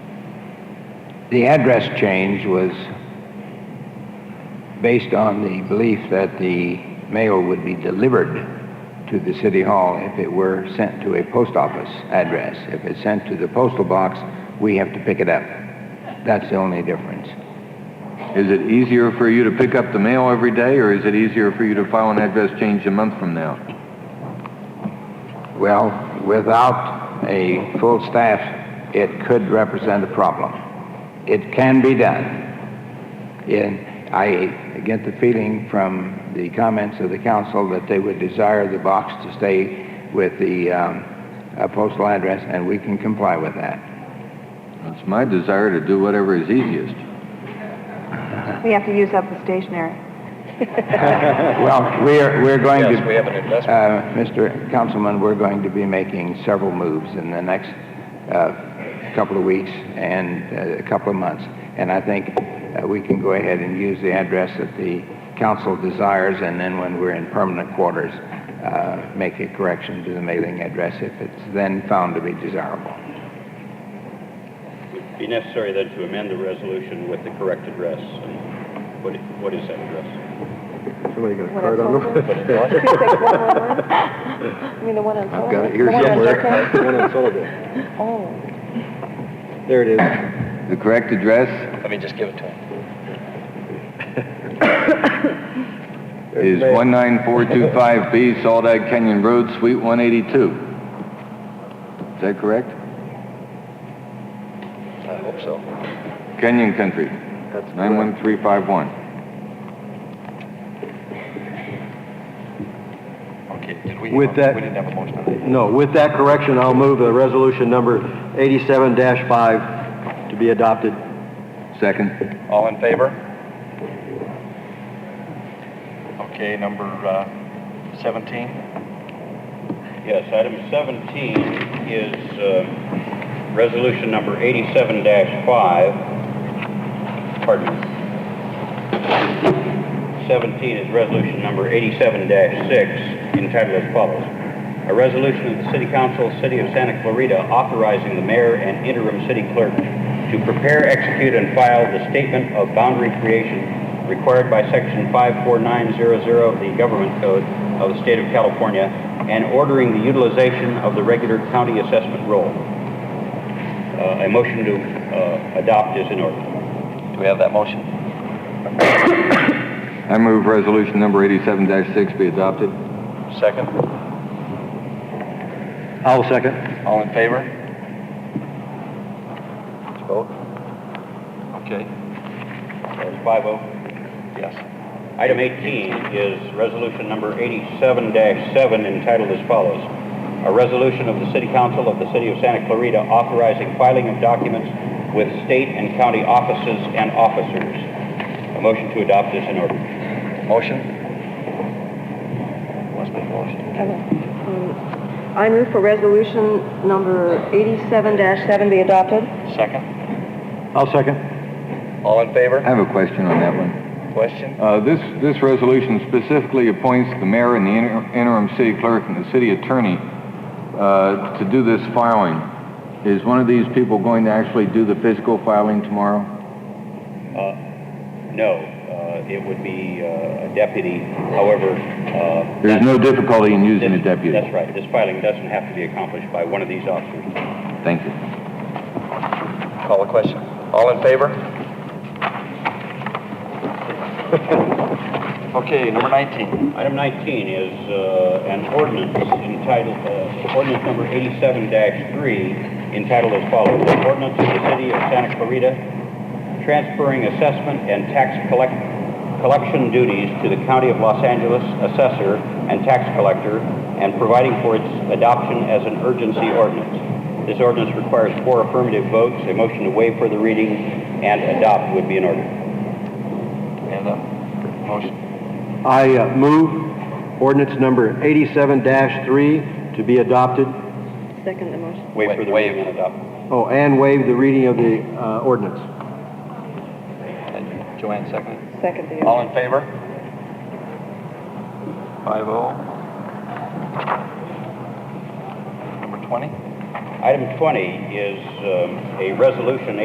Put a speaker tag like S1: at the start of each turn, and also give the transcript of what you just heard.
S1: The address change was based on the belief that the mail would be delivered to the city hall if it were sent to a post office address. If it's sent to the postal box, we have to pick it up. That's the only difference.
S2: Is it easier for you to pick up the mail every day, or is it easier for you to file an address change a month from now?
S1: Well, without a full staff, it could represent a problem. It can be done. And I get the feeling from the comments of the council that they would desire the box to stay with the um, uh, postal address, and we can comply with that.
S2: It's my desire to do whatever is easiest.
S3: We have to use up the stationery.
S1: Well, we're, we're going to...
S4: Yes, we have an investment.
S1: Uh, Mr. Councilman, we're going to be making several moves in the next uh, couple of weeks and uh, a couple of months. And I think uh, we can go ahead and use the address that the council desires, and then when we're in permanent quarters, uh, make a correction to the mailing address if it's then found to be desirable.
S5: Would be necessary then to amend the resolution with the correct address. And What, what is that address?
S6: Somebody got a
S3: What I
S6: card on
S3: told
S6: them?
S3: Two six one one one? You mean the one on Sullivan?
S2: got it here
S3: The one on
S2: somewhere.
S3: Jefferson?
S6: One on Sullivan.
S3: Oh,
S6: There it is.
S2: The correct address
S4: Let me just give it to him.
S2: is 19425B Saldag Canyon Road, Suite 182. Is that correct?
S4: I hope so.
S2: Canyon Country,
S6: That's correct.
S2: 91351.
S4: Okay, did we?
S6: With that-
S4: We didn't have a motion on that.
S6: No, with that correction, I'll move the resolution number 87-5 to be adopted.
S2: Second.
S4: All in favor? Okay, number uh, 17.
S5: Yes, item 17 is uh, resolution number 87-5. Pardon me. 17 is resolution number 87-6 entitled as follows. A resolution of the City Council, City of Santa Clarita, authorizing the mayor and interim city clerk to prepare, execute, and file the statement of boundary creation required by Section 54900 of the Government Code of the State of California and ordering the utilization of the regular county assessment roll. Uh, A motion to uh, adopt is in order.
S4: Do we have that motion?
S2: I move resolution number 87-6 be adopted.
S4: Second?
S6: I'll second.
S4: All in favor? Let's vote. Okay,
S5: That's 5-0.
S4: yes.
S5: Item 18 is resolution number 87-7 entitled as follows. A resolution of the City Council of the City of Santa Clarita authorizing filing of documents with state and county offices and officers. A motion to adopt is in order.
S4: Motion? Must be a motion.
S3: I move for resolution number eighty-seven seven be adopted.
S4: Second?
S6: I'll second.
S4: All in
S2: I
S4: favor?
S2: have a question on that one.
S4: Question?
S2: Uh, This, this resolution specifically appoints the mayor and the inter- interim city clerk and the city attorney uh, to do this filing. Is one of these people going to actually do the physical filing tomorrow?
S5: No, uh, it would be uh, a deputy, however... uh,
S2: There's no difficulty in using a
S5: this-
S2: deputy.
S5: That's right. This filing doesn't have to be accomplished by one of these officers.
S2: Thank you.
S4: Call the question. All in favor? Okay, number 19.
S5: Item 19 is uh, an ordinance entitled, uh, ordinance number 87-3, entitled as follows, "An ordinance of the City of Santa Clarita transferring assessment and tax collect- collection duties to the County of Los Angeles assessor and tax collector and providing for its adoption as an urgency ordinance. This ordinance requires four affirmative votes. A motion to waive further reading and adopt would be in order.
S4: And um, a motion.
S6: I uh, move ordinance number 87-3 to be adopted.
S3: Second the motion.
S5: Waive
S4: Wa-
S5: further
S4: waive.
S5: reading and adopt.
S6: Oh, and waive the reading of the uh, ordinance.
S4: And Joanne, second.
S3: Second the.
S4: All in favor? Five oh. Number 20?
S5: Item 20 is um, a resolution